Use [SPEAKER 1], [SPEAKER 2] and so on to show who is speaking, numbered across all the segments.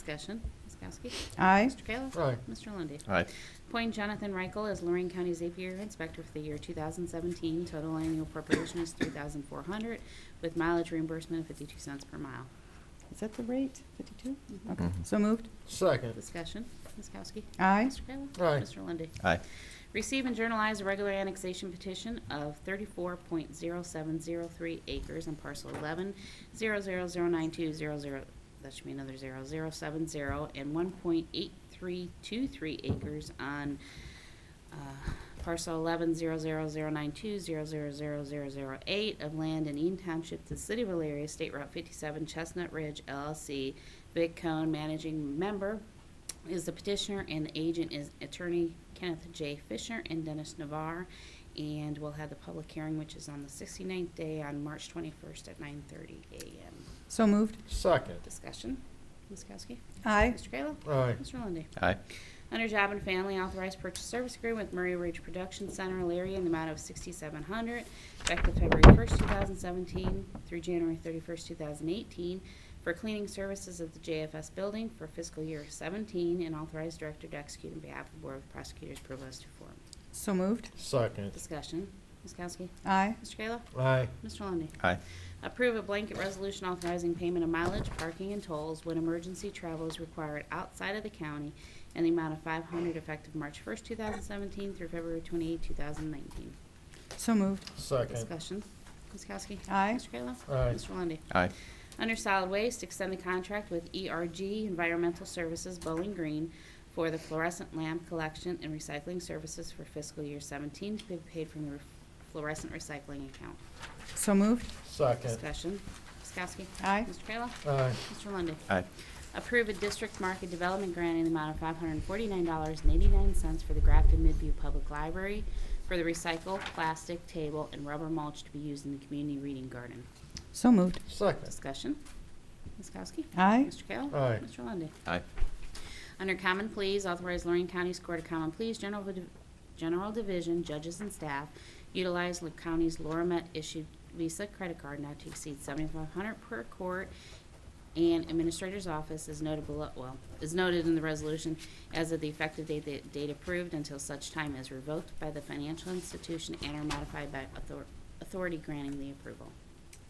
[SPEAKER 1] Discussion. Ms. Kowski?
[SPEAKER 2] Aye.
[SPEAKER 1] Mr. Kayla?
[SPEAKER 3] Aye.
[SPEAKER 1] Mr. Lundy.
[SPEAKER 4] Aye.
[SPEAKER 1] Appoint Jonathan Reichel as Lorraine County Zapier Inspector for the year 2017. Total annual appropriation is 3400 with mileage reimbursement of 52 cents per mile.
[SPEAKER 2] Is that the rate, 52?
[SPEAKER 1] Mhm.
[SPEAKER 2] Okay,
[SPEAKER 4] Mhm.
[SPEAKER 2] so moved.
[SPEAKER 3] Second.
[SPEAKER 1] Discussion. Ms. Kowski?
[SPEAKER 2] Aye.
[SPEAKER 1] Mr. Kayla?
[SPEAKER 3] Aye.
[SPEAKER 1] Mr. Lundy.
[SPEAKER 4] Aye.
[SPEAKER 1] Receive and journalize a regular annexation petition of 34.0703 acres in parcel 11, 0009200, that should be another 0070, and 1.8323 acres on uh, parcel 11, 00092 00008 of land in Eaton Township, the City of Elyria, State Route 57, Chestnut Ridge LLC. Vic Cone, managing member, is the petitioner, and the agent is attorney Kenneth J. Fisher and Dennis Navarre. And we'll have the public hearing, which is on the 69th day on March 21st at 9:30 a.m.
[SPEAKER 2] So moved.
[SPEAKER 3] Second.
[SPEAKER 1] Discussion, Ms. Kowski?
[SPEAKER 2] Aye.
[SPEAKER 1] Mr. Kayla?
[SPEAKER 3] Aye.
[SPEAKER 1] Mr. Lundy.
[SPEAKER 4] Aye.
[SPEAKER 1] Under Job and Family, authorized purchase service agreement with Murray Ridge Production Center, Alaria, in the amount of $6,700, effective February 1st, 2017 through January 31st, 2018, for cleaning services of the JFS building for fiscal year 17, and authorized director to execute on behalf of the Board of Prosecutors, Provost to form.
[SPEAKER 2] So moved.
[SPEAKER 3] Second.
[SPEAKER 1] Discussion. Ms. Kowski?
[SPEAKER 2] Aye.
[SPEAKER 1] Mr. Kayla?
[SPEAKER 3] Aye.
[SPEAKER 1] Mr. Lundy.
[SPEAKER 4] Aye.
[SPEAKER 1] Approve a blanket resolution authorizing payment of mileage, parking, and tolls when emergency travel is required outside of the county in the amount of 500 effective March 1st, 2017 through February 28, 2019.
[SPEAKER 2] So moved.
[SPEAKER 3] Second.
[SPEAKER 1] Discussion. Ms. Kowski?
[SPEAKER 2] Aye.
[SPEAKER 1] Mr. Kayla?
[SPEAKER 3] Aye.
[SPEAKER 1] Mr. Lundey?
[SPEAKER 4] Aye.
[SPEAKER 1] Under solid waste, extend the contract with ERG Environmental Services Bowling Green for the fluorescent lamp collection and recycling services for fiscal year 17 to be paid from the fluorescent recycling account.
[SPEAKER 2] So moved.
[SPEAKER 3] Second.
[SPEAKER 1] Discussion. Ms. Kowski?
[SPEAKER 2] Aye.
[SPEAKER 1] Mr. Kayla?
[SPEAKER 3] Aye.
[SPEAKER 1] Mr. Lundy.
[SPEAKER 4] Aye.
[SPEAKER 1] Approve a district market development grant in the amount of $549.89 for the Grafton Midview Public Library for the recycled plastic table and rubber mulch to be used in the community reading garden.
[SPEAKER 2] So moved.
[SPEAKER 3] Second.
[SPEAKER 1] Discussion. Ms. Kowski?
[SPEAKER 2] Aye.
[SPEAKER 1] Mr. Kayla?
[SPEAKER 3] Aye.
[SPEAKER 1] Mr. Lundy.
[SPEAKER 4] Aye.
[SPEAKER 1] Under Common Pleas, authorize Lorraine County's Court of Common Pleas, General, Div- General Division, judges and staff, utilize the county's Loramet issued Visa credit card not to exceed seventy-five hundred per court, and Administrator's Office is notable, well, is noted in the resolution as of the effective date, the date approved until such time as revoked by the financial institution and or modified by author- authority granting the approval.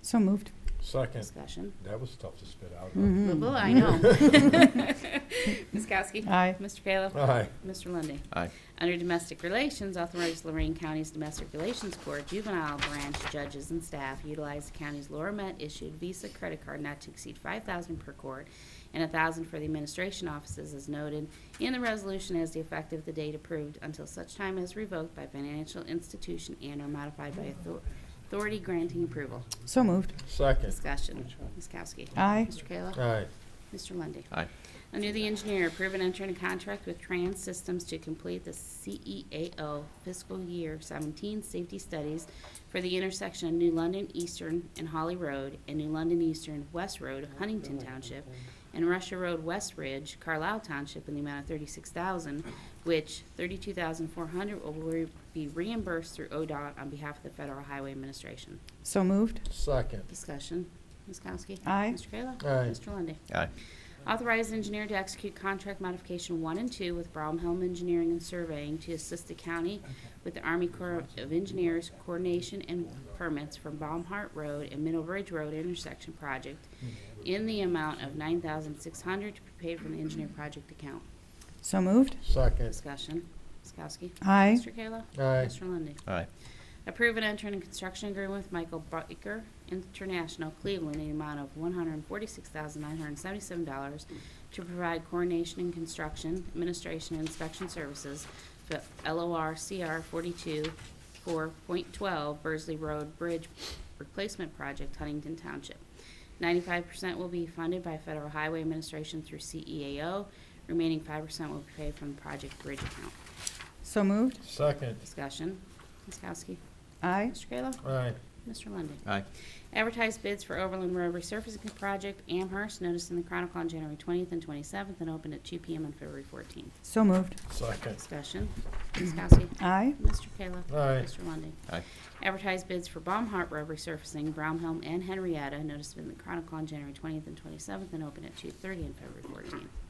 [SPEAKER 2] So moved.
[SPEAKER 3] Second.
[SPEAKER 1] Discussion.
[SPEAKER 3] That was tough to spit out. huh?
[SPEAKER 2] Mhm.
[SPEAKER 1] Blah, blah, I know. Ms. Kowski.
[SPEAKER 2] Aye.
[SPEAKER 1] Mr. Kayla.
[SPEAKER 3] Aye.
[SPEAKER 1] Mr. Lundy.
[SPEAKER 4] Aye.
[SPEAKER 1] Under Domestic Relations, authorize Lorraine County's Domestic Relations Court, juvenile branch judges and staff utilize the county's Laura Met issued Visa credit card not to exceed five thousand per court and a thousand for the administration offices as noted in the resolution as the effective the date approved until such time as revoked by financial institution and or modified by author- authority granting approval.
[SPEAKER 2] So moved.
[SPEAKER 3] Second.
[SPEAKER 1] Discussion. Ms. Kowski.
[SPEAKER 2] Aye.
[SPEAKER 1] Mr. Kayla.
[SPEAKER 3] Aye.
[SPEAKER 1] Mr. Lundy.
[SPEAKER 4] Aye.
[SPEAKER 1] Under the engineer, approve and enter into contract with Trans Systems to complete the CEAO fiscal year 17 safety studies for the intersection of New London Eastern and Holly Road and New London Eastern West Road, Huntington Township, and Russia Road West Ridge, Carlisle Township, in the amount of 36000 which 32400 will re- be reimbursed through ODOT on behalf of the Federal Highway Administration.
[SPEAKER 2] So moved.
[SPEAKER 3] Second.
[SPEAKER 1] Discussion. Ms. Kowski?
[SPEAKER 2] Aye.
[SPEAKER 1] Mr. Kayla?
[SPEAKER 3] Aye.
[SPEAKER 1] Mr. Lundy.
[SPEAKER 4] Aye.
[SPEAKER 1] Authorize engineer to execute contract modification one and two with Bromhelm Engineering and Surveying to assist the county with the Army Corps of Engineers coordination and permits for Baumhart Road and Middle Ridge Road intersection project in the amount of nine thousand six hundred to be paid from the engineer project account.
[SPEAKER 2] So moved.
[SPEAKER 3] Second.
[SPEAKER 1] Discussion. Ms. Kowski.
[SPEAKER 2] Aye.
[SPEAKER 1] Mr. Kayla.
[SPEAKER 3] Aye.
[SPEAKER 1] Mr. Lundy.
[SPEAKER 4] Aye.
[SPEAKER 1] Approve and enter in construction agreement with Michael Baker International Cleveland in the amount of $146,977 to provide coordination and construction, administration, and inspection services for LOR CR 42 4.12 Burzley Road Bridge Replacement Project, Huntington Township. 95% will be funded by Federal Highway Administration through CEAO. Remaining 5% will be paid from the project bridge account.
[SPEAKER 2] So moved.
[SPEAKER 3] Second.
[SPEAKER 1] Discussion. Ms. Kowski.
[SPEAKER 2] Aye.
[SPEAKER 1] Mr. Kayla.
[SPEAKER 3] Aye.
[SPEAKER 1] Mr. Lundy,
[SPEAKER 4] Aye.
[SPEAKER 1] Advertise bids for Overland Road resurfacing project, Amherst, notice in the Chronicle on January 20th and 27th, and open at 2 PM on February 14th.
[SPEAKER 2] So moved.
[SPEAKER 3] Second.
[SPEAKER 1] Discussion. Ms. Kowski.
[SPEAKER 2] Aye.
[SPEAKER 1] Mr. Kayla.
[SPEAKER 3] Aye.
[SPEAKER 1] Mr. Lundy,
[SPEAKER 4] Aye.
[SPEAKER 1] Advertise bids for Baumhart Road resurfacing, Brownhelm and Henrietta, notice in the Chronicle on January 20th and 27th, and open at 2:30 on February 14th.